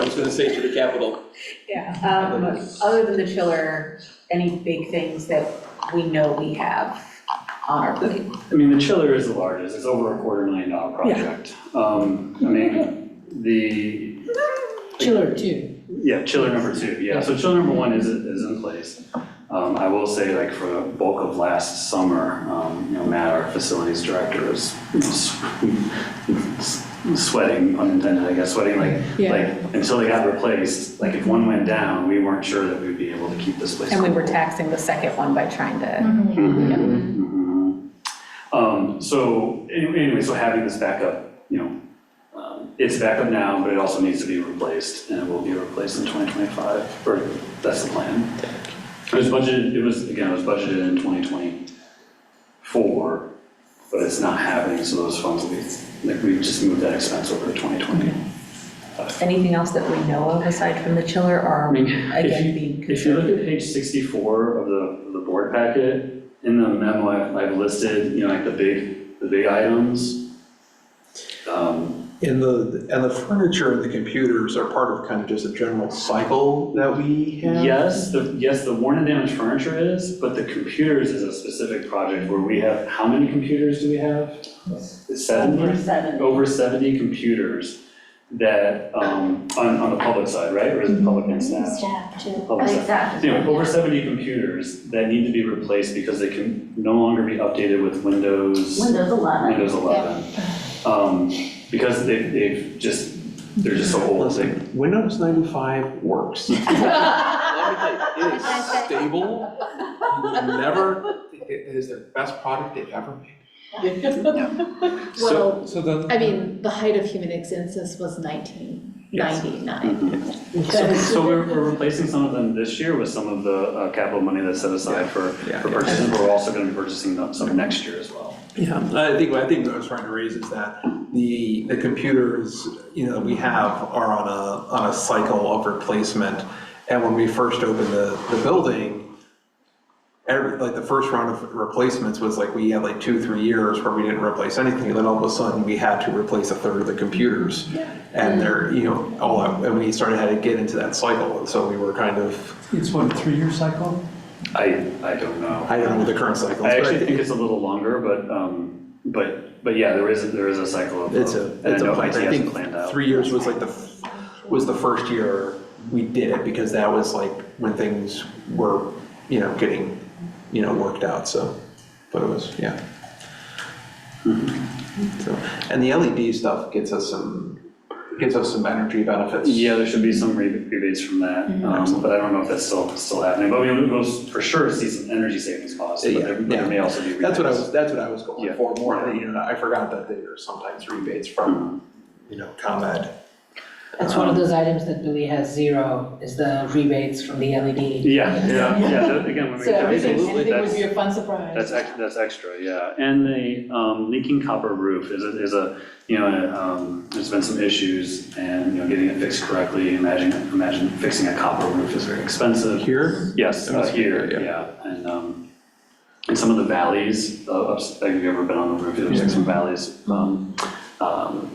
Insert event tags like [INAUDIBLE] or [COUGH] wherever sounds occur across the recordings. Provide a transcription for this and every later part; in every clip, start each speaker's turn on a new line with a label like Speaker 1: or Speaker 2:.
Speaker 1: I was gonna say to the Capitol.
Speaker 2: Yeah, um, other than the chiller, any big things that we know we have on our plate?
Speaker 3: I mean, the chiller is the largest, it's over a quarter million dollar project. Um, I mean, the,
Speaker 4: Chiller too.
Speaker 3: Yeah, chiller number two, yeah, so chiller number one is, is in place. Um, I will say, like, for the bulk of last summer, um, you know, Matt, our facilities director, was you know, s- sweating, unintended, I guess, sweating, like,
Speaker 4: Yeah.
Speaker 3: like, until they got replaced, like, if one went down, we weren't sure that we'd be able to keep this place.
Speaker 2: And we were
Speaker 3: cool.
Speaker 2: taxing the second one by trying to,
Speaker 3: Mhm. Um, so, any- anyway, so having this backup, you know, um, it's backup now, but it also needs to be replaced, and it will be replaced in 2025, or that's the plan. It was budgeted, it was, again, it was budgeted in 2024, but it's not happening, so those funds will be, like, we just moved that expense over to 2020.
Speaker 2: anything else that we know of aside from the chiller
Speaker 3: I
Speaker 2: or
Speaker 3: mean, if
Speaker 2: again,
Speaker 3: you,
Speaker 2: being
Speaker 3: if you
Speaker 2: concerned?
Speaker 3: look at page sixty-four of the, of the board packet, in the memo, I've, I've listed, you know, like the big, the big items. Um,
Speaker 5: And the, and the furniture and the computers are part of kind of just a general cycle that we have?
Speaker 3: Yes, the, yes, the worn and damaged furniture is, but the computers is a specific project where we have, how many computers do we have? Seventy?
Speaker 6: Over seven.
Speaker 3: over seventy computers that, um, on, on the public side, right, or is it public and staff?
Speaker 6: Staff too.
Speaker 3: Public staff.
Speaker 6: Staff.
Speaker 3: You know, over seventy computers that need to be replaced because they can no longer be updated with Windows,
Speaker 6: Windows eleven.
Speaker 3: Windows eleven. Um, because they, they've just, they're just so old, they,
Speaker 5: Listen, Windows 95 [LAUGHS] works. Let me tell you, It is stable, You will never, it it is the best product they've ever made.
Speaker 3: so,
Speaker 4: Well,
Speaker 5: So the,
Speaker 4: I mean, the height of human existence was nineteen
Speaker 3: Yes.
Speaker 4: ninety-nine.
Speaker 3: so, [LAUGHS] so we're, we're replacing some of them this year with some of the, uh, capital money that's set aside for,
Speaker 5: Yeah,
Speaker 3: for
Speaker 5: yeah.
Speaker 3: purchases, but we're also gonna be purchasing them some next year as well.
Speaker 5: Yeah, I think, I think what I was trying to raise is that the, the computers, you know, we have are on a, on a cycle of replacement. And when we first opened the, the building, every, like the first round of replacements was like, we had like two, three years where we didn't replace anything. And then all of a sudden, we had to replace a third of the computers. And they're, you know, all, out- and we started had to get into that cycle. And so we were kind of,
Speaker 7: It's what, a three-year cycle?
Speaker 3: I, I don't know.
Speaker 5: I don't know the current cycle.
Speaker 3: I actually think it's a little longer, but, um, but, but yeah, there is, there is a cycle of.
Speaker 5: It's a,
Speaker 3: of-
Speaker 5: it's a,
Speaker 3: And I know
Speaker 5: plan.
Speaker 3: IT
Speaker 5: I
Speaker 3: hasn't planned
Speaker 5: think
Speaker 3: out.
Speaker 5: three years was like the, f- was the first year we did it, because that was like when things were, you know, getting, you know, worked out, so, but it was, yeah. So, and the LED stuff gets us some, gets us some energy benefits.
Speaker 3: Yeah, there should be some re- rebates from that,
Speaker 5: Mm-hmm.
Speaker 3: um, but I don't know if that's still, still happening, but we will for sure see some energy savings costs, but there, but there may also be rebates.
Speaker 5: That's what I was, that's what I was going
Speaker 3: Yeah.
Speaker 5: for, more, than, you know, I forgot that there are sometimes rebates from, you know, ComEd.
Speaker 8: That's one of
Speaker 3: Um,
Speaker 8: those items that really has zero, is the rebates from the LED.
Speaker 3: Yeah, yeah, yeah, that- again, when we
Speaker 8: So
Speaker 3: get
Speaker 8: everything,
Speaker 3: rebates,
Speaker 8: anything would
Speaker 3: that's,
Speaker 8: be a fun surprise.
Speaker 3: that's, ex- that's extra, yeah. And the, um, leaking copper roof is a, is a, you know, um, there's been some issues and, you know, getting it fixed correctly, imagine, imagine fixing a copper roof is very expensive.
Speaker 5: Here?
Speaker 3: Yes,
Speaker 5: That was
Speaker 3: uh, here,
Speaker 5: here,
Speaker 3: yeah, and, um, in some of the valleys, uh, ups- have you ever been on the roof, there's like some valleys, um, um,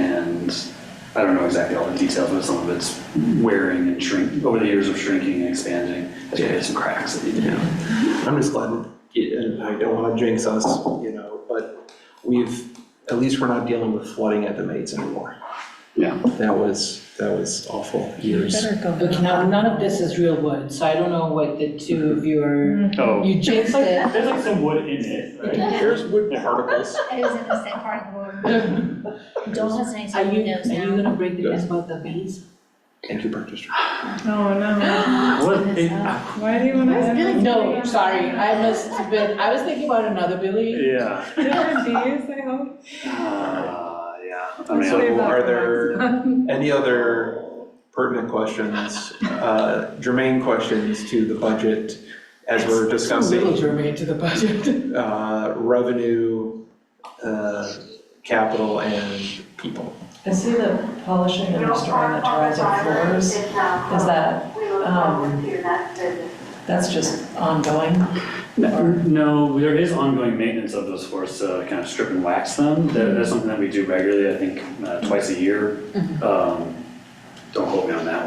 Speaker 3: and I don't know exactly all the details, but some of it's wearing and shrink, over the years of shrinking and expanding, has created some cracks that need to be.
Speaker 5: I'm just glad, and I don't wanna jinx us, you know, but we've, at least we're not dealing with flooding at the Maids anymore.
Speaker 3: Yeah.
Speaker 5: That was, that was awful years.
Speaker 2: Better go.
Speaker 8: Okay, now, none of this is real wood, so I don't know what the two of you are,
Speaker 3: Oh,
Speaker 8: you
Speaker 3: [LAUGHS]
Speaker 8: jinxed it.
Speaker 3: there's like some wood in it, right?
Speaker 5: Here's wood particles.
Speaker 6: It was in the same part of the world. Don't listen to
Speaker 8: Are you,
Speaker 6: anything
Speaker 8: are you gonna break the news about the bees?
Speaker 5: Thank you, Park District.
Speaker 9: Oh, no.
Speaker 3: What, it-
Speaker 9: Why do you want to?
Speaker 6: That's really-
Speaker 8: No, sorry, I must have been, I was thinking about another Billy.
Speaker 3: yeah.
Speaker 9: Different bees, I hope.
Speaker 3: Uh, yeah, I
Speaker 9: Sorry
Speaker 3: mean,
Speaker 9: about
Speaker 5: Are
Speaker 9: that.
Speaker 5: there any other pertinent questions, uh, germane questions to the budget as we're
Speaker 8: Little
Speaker 5: discussing,
Speaker 8: germane to the budget.
Speaker 5: uh, revenue, uh, capital and people?
Speaker 9: I see the polishing and restoring the terrazzo floors. Is that, um, that's just ongoing?
Speaker 3: No, there is ongoing maintenance of those floors to kind of strip and wax them. That- That's something that we do regularly, I think, uh, twice a year. Um, don't hold me on that one.